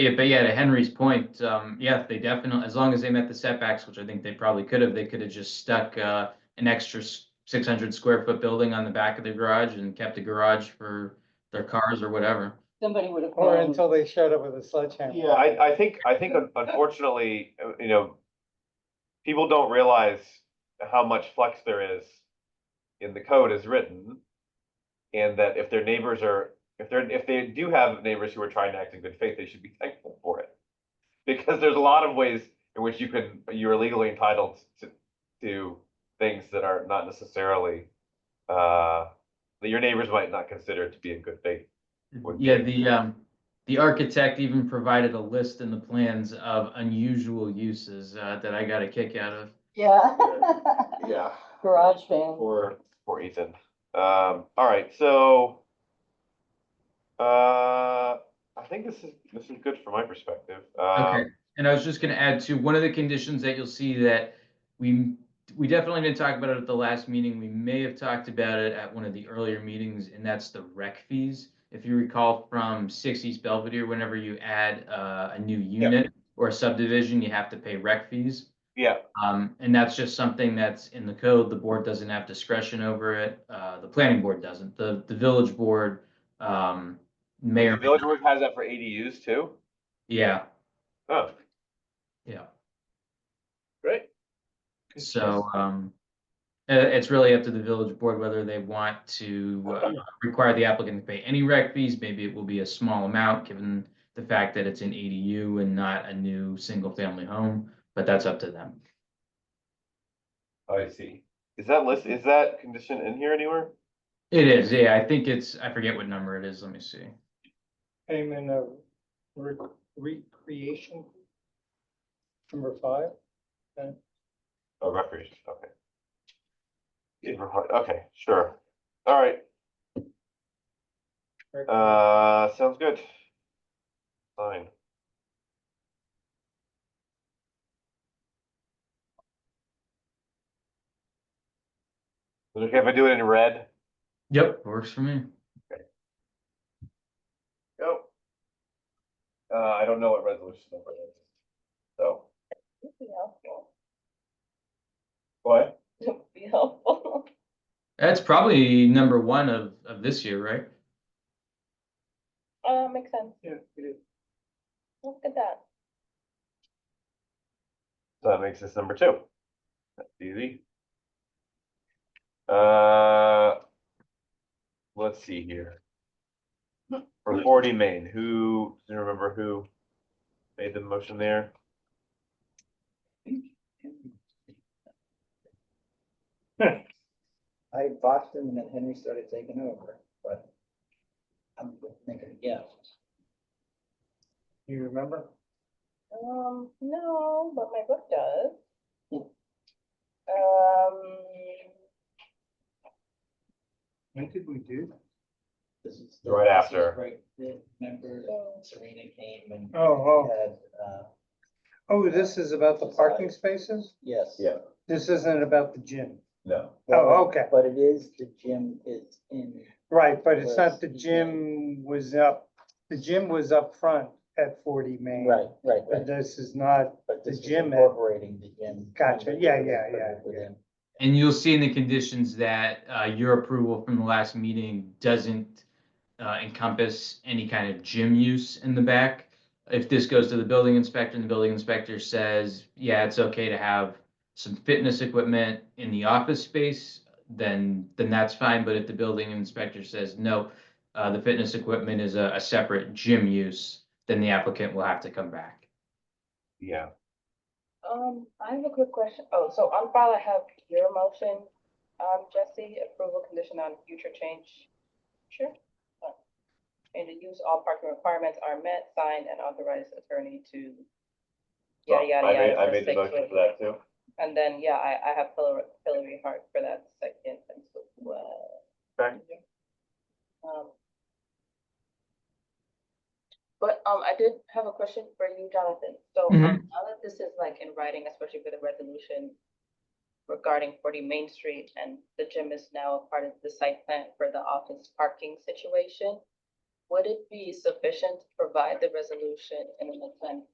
Yeah, but yeah, to Henry's point, um, yeah, they definitely, as long as they met the setbacks, which I think they probably could have, they could have just stuck, uh, an extra six hundred square foot building on the back of the garage and kept a garage for their cars or whatever. Somebody would have. Or known. until they showed up with a sledgehammer. Um, Yeah, I, I think, I think un- unfortunately, uh, you know, people don't realize how much flex there is in the code as written. And that if their neighbors are, if they're, if they do have neighbors who are trying to act in good faith, they should be thankful for it. Because there's a lot of ways in which you can, you're legally entitled to, to things that are not necessarily, uh, that your neighbors might not consider to be in good faith. Would Yeah, be- the, um, the architect even provided a list in the plans of unusual uses, uh, that I got a kick out of. Yeah. Yeah. Garage van. For, for Ethan. Um, all right, so. Uh, I think this is, this is good from my perspective. Okay, Um, and I was just gonna add to, one of the conditions that you'll see that we, we definitely didn't talk about it at the last meeting, we may have talked about it at one of the earlier meetings, and that's the rec fees. If you recall from Six East Belvedere, whenever you add, uh, a new unit or a subdivision, you have to pay rec fees. yeah, Um, and that's just something that's in the code. The board doesn't have discretion over it. Uh, the planning board doesn't. The, the village board, um, may the or, may- village board has that for ADUs too. yeah, Oh, yeah. great. So, um, uh, it's really up to the village board whether they want to uh, require the applicant to pay any rec fees. Maybe it will be a small amount, given the fact that it's an ADU and not a new single-family home, but that's up to them. Oh, I see. Is that list, is that condition in here anywhere? It is, yeah, I think it's, I forget what number it is, let me see. Payment of re- recreation. Number five. Oh, recreation, okay. Yeah, right, Okay, sure. All right, rec- uh, sounds good. Fine. Is it Okay, if I do it in red? Yep. Works for me. Go. Uh, I don't know what resolution number it is. So, Would be helpful. what? Would be helpful. That's probably number one of, of this year, right? Uh, makes sense. Yeah, it is. Look at that. So that makes this number two. That's easy. Uh, let's see here. For forty main, who, do you remember who made the motion there? I bought them and then Henry started taking over, but I'm thinking, yeah. You remember? Um, no, but my book does. Um, When did we do that? this is Right this is after. Right, the- remember so- Serena came and. Oh, oh, had, uh, oh, this is about the parking spaces? Yes. Yeah. This isn't about the gym. No. Oh, okay. But it is, the gym is in, Right, but it's not the gym was up, the gym was up front at forty Main. right, right, But right. this is not, But this the is gym- incorporating the gym. Gotcha. Yeah, yeah, yeah, yeah. Within- And you'll see in the conditions that, uh, your approval from the last meeting doesn't, uh, encompass any kind of gym use in the back. If this goes to the building inspector and the building inspector says, yeah, it's okay to have some fitness equipment in the office space, then, then that's fine. But if the building inspector says, no, uh, the fitness equipment is a, a separate gym use, then the applicant will have to come back. Yeah, Um, I have a quick question. Oh, so on file I have your motion, um, Jesse, approval condition on future change. Sure. Uh, And to use all parking requirements are met, signed and authorized attorney to. so Yada, yada, Oh, I made, yada. I for made the six motion for with- that too. And then, yeah, I, I have Hillary, Hillary Hart for that second as well. Okay. Um, But, um, I did have a question for you, Jonathan. So, um, Mhm. now that this is like in writing, especially for the resolution regarding forty Main Street and the gym is now a part of the site plan for the office parking situation, Would it be sufficient to provide the resolution in an attend-